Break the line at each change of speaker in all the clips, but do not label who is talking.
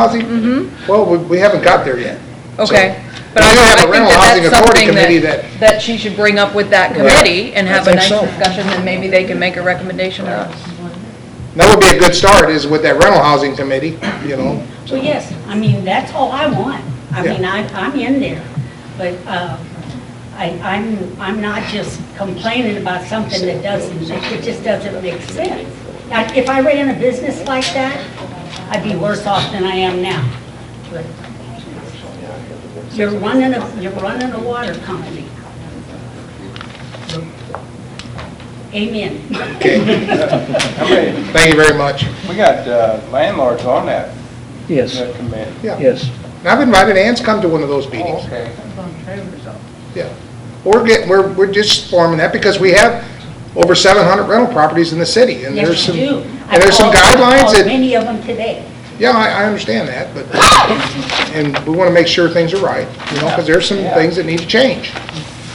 housing? Well, we- we haven't got there yet.
Okay, but
We
I
do have
I
a
think
rental
that
housing
that's
authority
something
committee
that, that she should bring up with that committee and
I
have a
think
nice
so.
discussion, and maybe they can make a recommendation to us.
That would be a good start, is with that rental housing committee, you know? so.
Mm-hmm. Well, yes, I mean, that's all I want. I
Yeah.
mean, I, I'm in there, but uh, I, I'm, I'm not just complaining about something that doesn't, it just doesn't make sense. Like, If I ran a business like that, I'd be worse off than I am now. But You're running a, you're running a water company. Amen.
Okay,
Thank you very much.
we got uh, landlords on that,
Yes,
that commit.
Yeah.
yes.
And I've invited Ann's come to one of those meetings.
Oh, Okay.
Yeah. We're getting, we're, we're just forming that because we have over 700 rental properties in the city. and there's
Yes, you
some
do. I
And there's some
called- I
guidelines
called
that,
Many of them today.
yeah, I, I understand that, but, and we want to make sure things are right, you know, because there's some
Yeah.
things that need to change.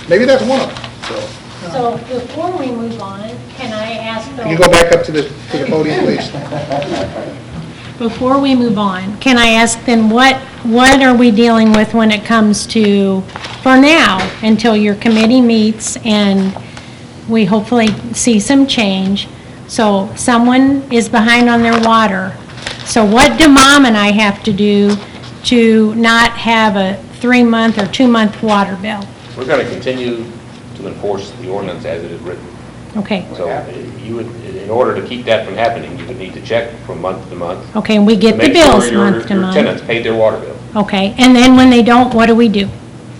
Maybe that's one of them, so.
So before we move on, can I ask
Can you
Bill,
go back up to the, to the podium, please?
before we move on, can I ask then what, what are we dealing with when it comes to, for now, until your committee meets and we hopefully see some change? So someone is behind on their water. So what do mom and I have to do to not have a three-month or two-month water bill?
We're going to continue to enforce the ordinance as it is written.
Okay,
So you would, in order to keep that from happening, you would need to check from month to month.
okay, and we
to
Oh, get the
make sure
bills
your-
month to month.
Your tenants paid their water bill.
Okay, and then when they don't, what do we do?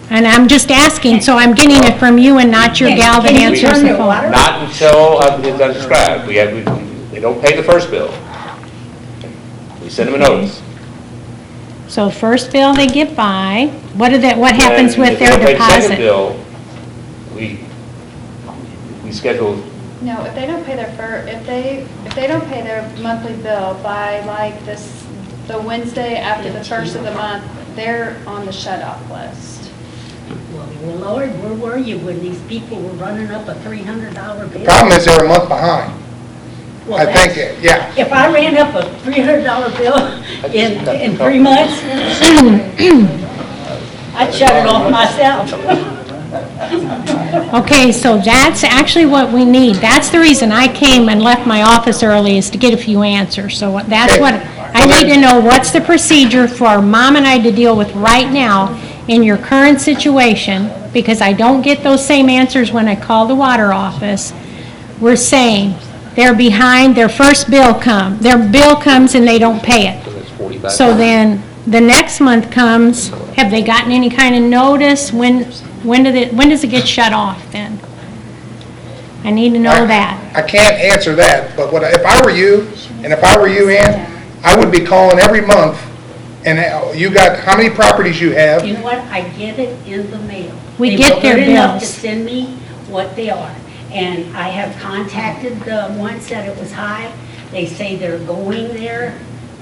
And I'm just asking, so I'm getting it from you and not your gal that
Can you
answers
turn
the
your water
phone.
Not until, uh, as I described, we have, we- they don't pay the first bill. We send them a notice.
So first bill they get by, what do that, what happens
And
with their
If they don't pay the
deposit?
second bill, we, we schedule,
No, if they don't pay their fir, if they, if they don't pay their monthly bill by like this, the Wednesday after the first of the month, they're on the shut-off list.
Well, Lord, where were you when these people were running up a three hundred dollar bill?
Problem is, they're a month behind,
Well,
I
that's-
think, yeah.
If I ran up a three hundred dollar bill in, in three months, I'd shut it off myself.
Okay, so that's actually what we need. That's the reason I came and left my office early, is to get a few answers. So what- that's
Okay.
what, I
Well, then-
need to know what's the procedure for mom and I to deal with right now in your current situation, because I don't get those same answers when I call the water office. We're saying, they're behind, their first bill come, their bill comes and they don't pay it.
so that's 45.
So then, the next month comes, have they gotten any kind of notice? When, when did it, when does it get shut off then? I need to know that.
I can't answer that, but what, I- if I were you, and if I were you, Ann, I would be calling every month, and uh, you got, how many properties you have?
You know what, I get it in the mail.
We
They
get
were
their
good enough to
bills.
send me what they are, and I have contacted the ones that it was high. They say they're going there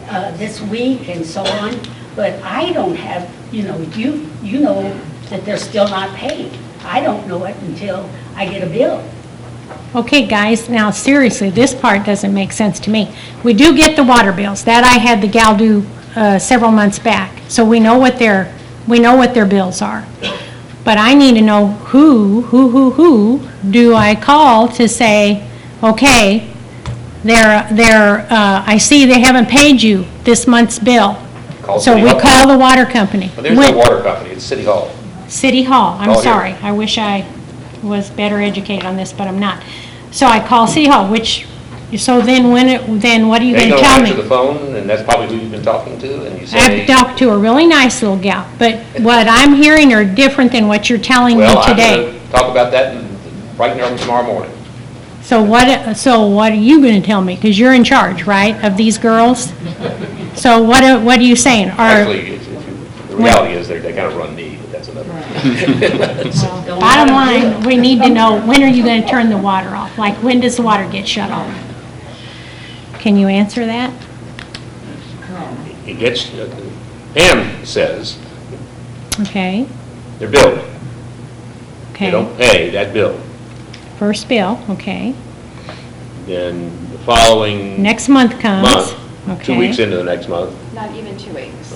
uh, this week and so on, but I don't have, you know, you, you know that they're still not paid. I don't know it until I get a bill.
Okay, guys, now seriously, this part doesn't make sense to me. We do get the water bills, that I had the gal do uh, several months back, so we know what their, we know what their bills are. But I need to know who, who, who, who do I call to say, okay, they're, they're, uh, I see they haven't paid you this month's bill.
Call
So
City
we
Hall.
call the water company.
But there's no
When-
water company, it's City Hall.
City Hall, I'm
Oh, yeah.
sorry. I wish I was better educated on this, but I'm not. So I call City Hall, which, so then when, it then what are you
They
going to
don't
tell
answer the
me?
phone, and that's probably who you've been talking to, and you say.
I've talked to a really nice little gal, but what I'm hearing are different than what you're telling me
Well, I'm
today.
going to talk about that in- right now tomorrow morning.
So what, so what are you going to tell me? Because you're in charge, right, of these girls? So what, are- what are you saying? Are,
Actually, it's- it's- the reality is they're- they kind of run me, but that's another.
bottom line, we need to know, when are you going to turn the water off? Like, when does the water get shut off? Can you answer that?
It gets, uh, Pam says,
Okay,
they're billed. They
okay.
don't pay that bill.
First bill, okay.
Then the following
Next month comes.
month, two weeks into the next month,
not even two weeks.